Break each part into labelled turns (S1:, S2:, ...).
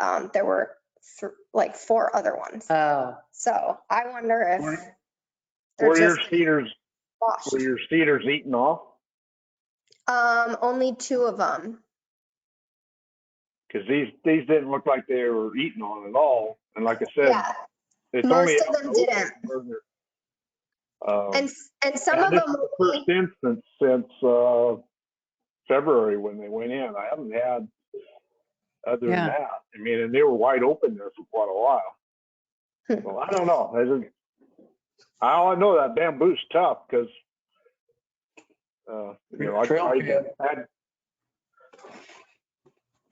S1: um, there were th- like four other ones.
S2: Oh,
S1: So I wonder if
S3: Were-
S1: they're
S3: Were your
S1: just
S3: cedars,
S1: washed.
S3: were your cedars eaten off?
S1: Um, only two of them.
S3: Because these, these didn't look like they were eaten on at all. And like I said,
S1: Yeah,
S3: it's
S1: most
S3: only.
S1: of them
S3: didn't.
S1: and and some
S3: Yeah,
S1: of
S3: this
S1: them.
S3: is the First uh, instance since uh, February when they went in. I haven't had, other than
S2: Yeah.
S3: that, I mean, and they were wide open there for quite a
S1: Hmm.
S3: while. Well, I don't know. I don't- I all know that bamboo's tough because, you know, I
S4: Trail
S3: tried,
S4: pan.
S3: had-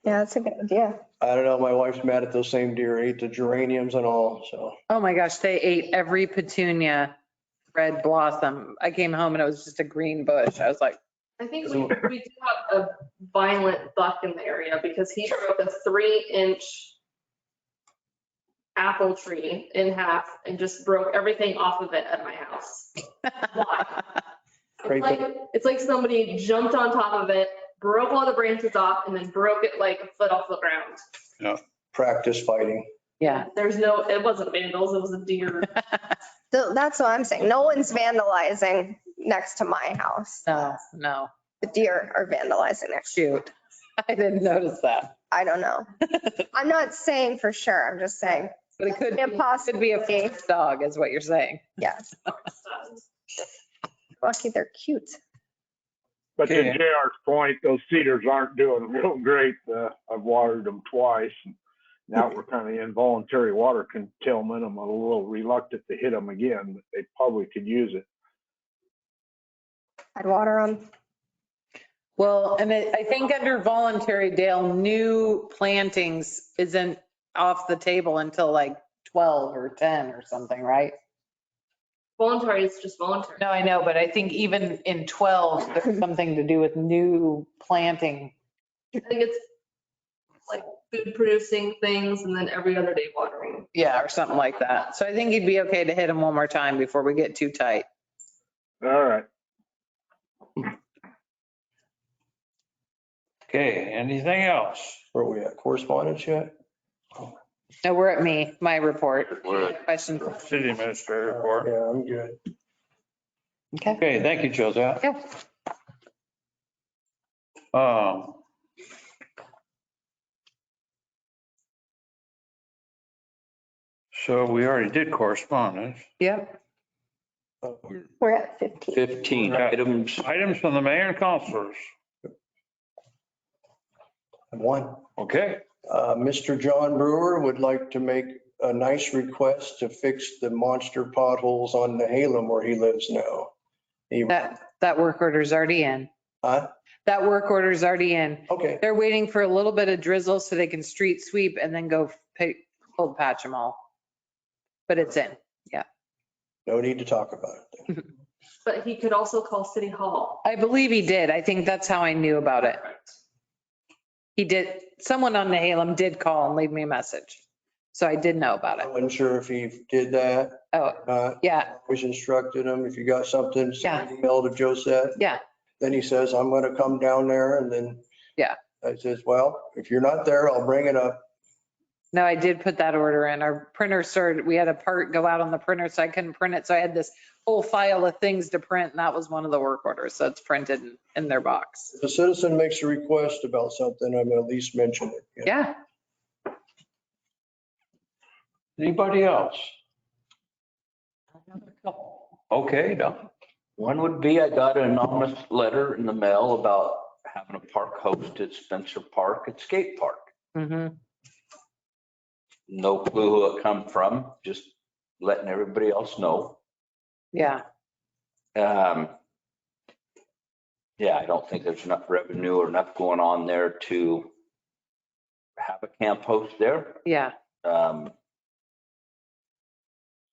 S1: Yeah, that's a good idea.
S4: I don't know, my wife's mad at those same deer, ate the geraniums and all, so.
S2: oh my gosh, they ate every petunia red blossom. I came home and it was just a green bush. I was like,
S5: I think we,
S4: So-
S5: we do have a violent buck in the area because he broke a three inch apple tree in half and just broke everything off of it at my house. Why? It's
S4: Crazy.
S5: like, it's like somebody jumped on top of it, broke all the branches off and then broke it like a foot off the ground.
S4: Practice fighting.
S2: yeah.
S5: There's no, it wasn't vandals, it was a deer.
S1: So that's what I'm saying. No one's vandalizing next to my house.
S2: No, no,
S1: The deer are vandalizing next.
S2: shoot. I didn't notice that.
S1: I don't know. I'm not saying for sure. I'm just saying,
S2: But it could, be- could
S1: impossible.
S2: be a fox dog is what you're saying.
S1: Yes. Lucky they're cute.
S3: but to
S4: Okay.
S3: JR's point, those cedars aren't doing real great. Uh, I've watered them twice. and Now we're kind of involuntary water containment. I'm a little reluctant to hit them again, but they probably could use it.
S1: I'd water them.
S2: Well, and I I think under voluntary, Dale, new plantings isn't off the table until like 12 or 10 or something, right?
S5: Voluntary is just voluntary.
S2: No, I know, but I think even in 12, there's something to do with new planting.
S5: I think it's like food producing things and then every other day watering.
S2: Yeah, or something like that. So I think you'd be okay to hit them one more time before we get too tight.
S3: All right.
S6: Okay, anything else?
S4: Where we at? Correspondence yet?
S2: No, we're at me, my report.
S6: We're
S2: Question.
S6: at City administrator report.
S4: Yeah, I'm good.
S2: Okay.
S6: Okay, thank you, Josette.
S2: Yeah.
S6: Um. So we already did correspondence.
S2: Yep.
S1: We're at 15.
S4: 15 items.
S6: Items from the mayor and counselors.
S4: One.
S6: Okay,
S4: Uh, Mr. John Brewer would like to make a nice request to fix the monster potholes on the Halem where he lives now. He-
S2: That, that work order's already in.
S4: Huh?
S2: That work order's already in.
S4: Okay,
S2: They're waiting for a little bit of drizzle so they can street sweep and then go pa- cold patch them all. But it's in.
S4: no need to talk about it.
S5: But he could also call City Hall.
S2: I believe he did. I think that's how I knew about it. He did, someone on Nahalem did call and leave me a message. So I did know about
S4: I
S2: it.
S4: wasn't sure if he did that.
S2: Oh,
S4: Uh,
S2: yeah,
S4: always instructed him, if you got something, send
S2: Yeah.
S4: an email to Josette.
S2: Yeah.
S4: Then he says, I'm going to come down there and then.
S2: Yeah.
S4: I says, well, if you're not there, I'll bring it up.
S2: no, I did put that order in. Our printer started, we had a part go out on the printer, so I couldn't print it. So I had this whole file of things to print and that was one of the work orders. So it's printed in- in their box.
S4: If a citizen makes a request about something, I'm going to at least mention it. you know.
S2: Yeah,
S6: anybody else? Okay, Don.
S7: One would be I got an anonymous letter in the mail about having a park host at Spencer Park at Skate Park.
S2: hmm
S7: No clue who it come from, just letting everybody else know.
S2: yeah.
S7: Um, Yeah, I don't think there's enough revenue or enough going on there to have a camp host there.
S2: Yeah,
S7: Um,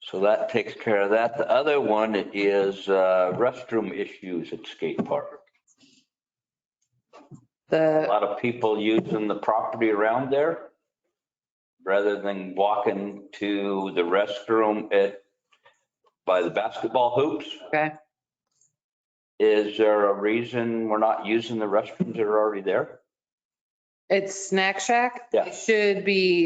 S7: So that takes care of that. The other one is uh, restroom issues at skate park. a
S2: the,
S7: lot of people using the property around there rather than walking to the restroom at, by the basketball hoops.
S2: okay.
S7: Is there a reason we're not using the restrooms that are already there?
S2: It's Snack Shack.
S7: Yeah.
S2: It Should be